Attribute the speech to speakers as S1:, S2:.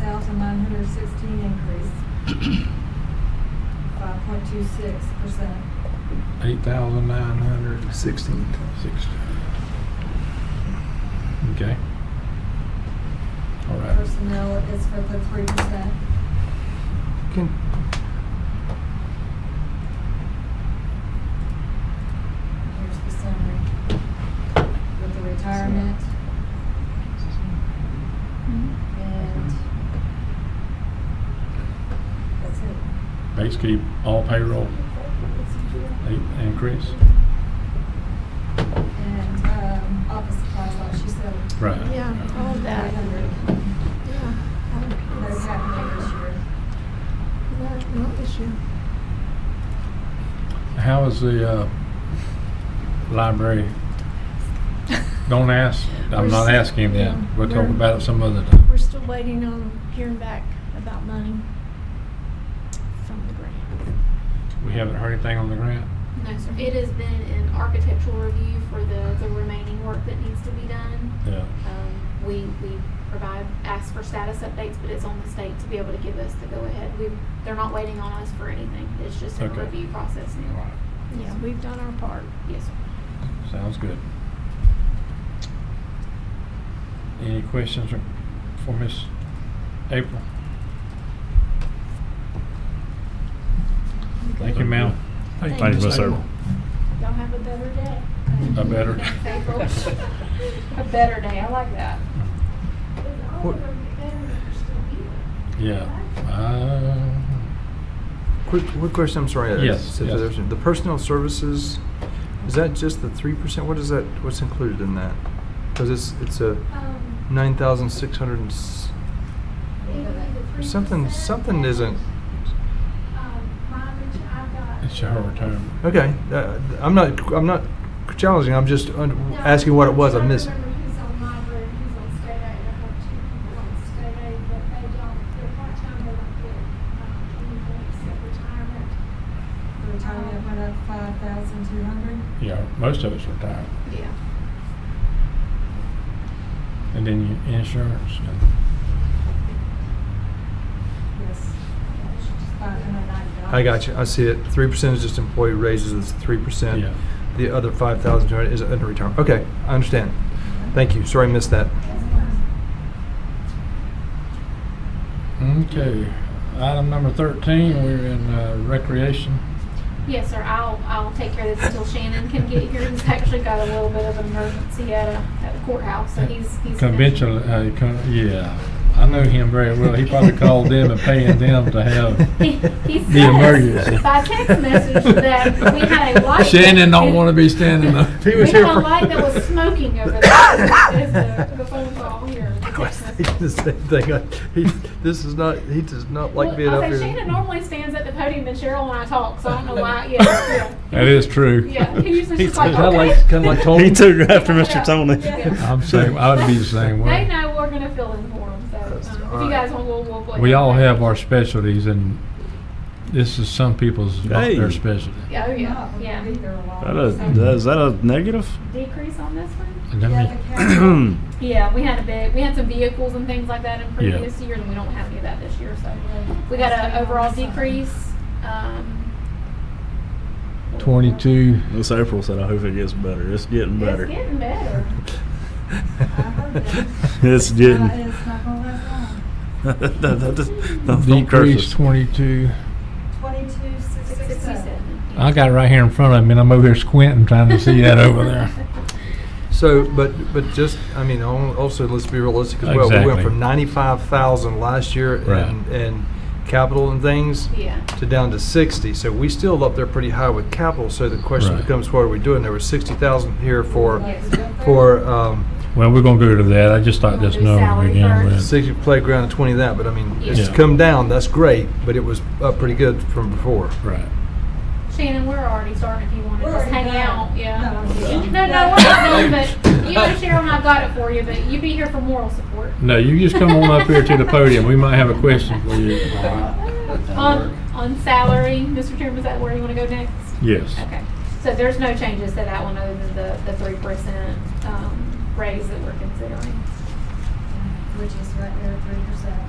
S1: thousand nine hundred sixteen increase. Five point two six percent.
S2: Eight thousand nine hundred and
S3: Sixteen.
S2: sixty. Okay. All right.
S1: Personnel is for the three percent.
S3: Can,
S1: Here's the summary. With the retirement and that's it.
S2: Basically, all payroll eight increase.
S1: And, um, office supplies, like she said.
S2: Right.
S4: Yeah, all of that.
S1: Three hundred.
S4: Yeah.
S1: That's happening this year.
S4: Not, not this year.
S2: How is the uh, library? Don't ask. I'm not asking that. We'll talk about it some other time.
S4: We're still waiting on hearing back about money from the grant.
S2: We haven't heard anything on the grant.
S5: No, sir. It has been an architectural review for the, the remaining work that needs to be done.
S2: Yeah.
S5: Um, we, we provide, ask for status updates, but it's on the state to be able to give us the go-ahead. We, they're not waiting on us for anything. It's just a
S2: Okay.
S5: review process
S2: All
S5: now.
S2: right.
S4: Yeah, we've done our part.
S5: Yes, sir.
S2: Sounds good. Any questions or- for Miss April? Thank you, ma'am.
S4: Thank
S6: Thank you,
S4: you.
S6: Miss Earl.
S4: Y'all have a better day.
S2: A better.
S5: April. A better day, I like that.
S3: What-
S2: Yeah. Uh,
S3: quick, quick question, I'm sorry. I-
S2: Yes,
S3: if
S2: yes.
S3: there's- The personnel services, is that just the three percent? What is that, what's included in that? Because it's, it's a
S7: Um,
S3: nine thousand six hundred and, s-
S7: either the
S3: something,
S7: 3%
S3: something isn't,
S7: Um, mileage, I've got.
S2: It's her retirement.
S3: okay. uh, I'm not, I'm not challenging, I'm just un-
S7: No,
S3: asking what it was, I
S7: trying to
S3: missed.
S7: remember who's on library, who's on state aid, I have two people on state aid, but they don't, they're part-time, they don't get, um, anything except retirement.
S1: The retirement went up five thousand two hundred.
S2: Yeah, most of us retired.
S5: Yeah.
S2: And then your insurance. and-
S1: Yes. Five hundred ninety dollars.
S3: I got you, I see it. Three percent is just employee raises, it's three percent.
S2: Yeah.
S3: The other five thousand two hundred is under retirement. Okay, I understand. Thank you, sorry I missed that.
S2: Okay. Item number 13, we're in uh, recreation.
S5: Yes, sir. I'll, I'll take care of this until Shannon can get here. He's actually got a little bit of an emergency at a, at the courthouse, so he's, he's. gonna-
S2: Conventional, uh, con- yeah. I know him very well. He probably called them and paying them to have
S5: He, he
S2: The emergency.
S5: says by text message that we had a light.
S2: Shannon don't want to be standing up.
S3: He
S5: We
S3: was
S5: had
S3: here
S5: a
S3: for-
S5: light that was smoking over there. That's the, the phone call here. the
S3: I
S5: text
S3: was
S5: message.
S3: thinking the same thing. I, he, this is not, he does not like
S5: Well,
S3: being
S5: I
S3: up
S5: was
S3: here.
S5: like, Shannon normally stands at the podium and Cheryl and I talk, so I don't know why, yeah, yeah.
S2: That is true.
S5: Yeah, he usually just like,
S2: Is that
S5: okay.
S2: like- kinda like Tony?
S6: He took it after
S5: Yeah,
S6: Mr. Tony.
S5: yeah.
S2: Oh. I'm saying, I would be the same
S5: They
S2: way.
S5: know we're gonna fill in for them, so,
S3: That's
S5: um, if
S3: alright.
S5: you guys want, we'll, we'll. go
S2: We
S5: ahead
S2: all
S5: and-
S2: have our specialties, and this is some people's not their
S6: Hey.
S2: specialty.
S5: Yeah, Oh, yeah, yeah.
S6: That a, that- is that a negative?
S5: Decrease on this one?
S2: And
S1: Yeah,
S2: let
S1: the
S2: me-
S1: cash,
S5: Yeah, we had a big, we had some vehicles and things like that in
S2: Yeah.
S5: previous years, and we don't have any of that this year, so. We got an overall decrease, um.
S2: Twenty-two.
S6: Miss April said, I hope it gets better. It's getting better.
S5: It's getting better.
S6: It's
S1: uh,
S6: getting.
S1: It's not gonna last long.
S5: Uh,
S6: Don't- don't- don't curse
S2: Decrease
S6: us.
S2: twenty-two.
S1: Twenty-two, six, six, seven.
S5: Sixty-seven.
S2: I got it right here in front of me, and I'm over here squinting trying to see that over there.
S3: So, but, but just, I mean, al- also, let's be realistic as well. We went
S2: Exactly.
S3: from ninety-five thousand last year
S2: Right.
S3: and, and capital and things
S5: Yeah.
S3: to down to sixty. So we still up there pretty high with capital. So the question
S2: Right.
S3: becomes, what are we doing? There was sixty thousand here for,
S1: Yes, up there.
S3: for, um,
S2: Well, we're gonna go to that. I just thought this
S5: Do
S2: number
S5: salary
S2: again.
S5: first.
S2: with.
S3: sixty playground and twenty that, but I mean, it's
S2: Yeah.
S3: come down, that's great, but it was up pretty good from before.
S2: Right.
S5: Shannon, we're already starting if you want to
S1: We're
S5: just
S1: already
S5: hang
S1: done.
S5: out,
S1: No,
S5: yeah.
S1: I'm
S5: No,
S1: kidding.
S5: no, we're not done, but you and Cheryl and I got it for you, but you be here for moral support.
S2: No, you just come on up here to the podium. We might have a question for you.
S5: On, on salary, Mr. Chairman, is that where you want to go next?
S2: Yes.
S5: Okay, so there's no changes to that one other than the, the three percent, um, raise that we're considering.
S1: Which is right there, three percent.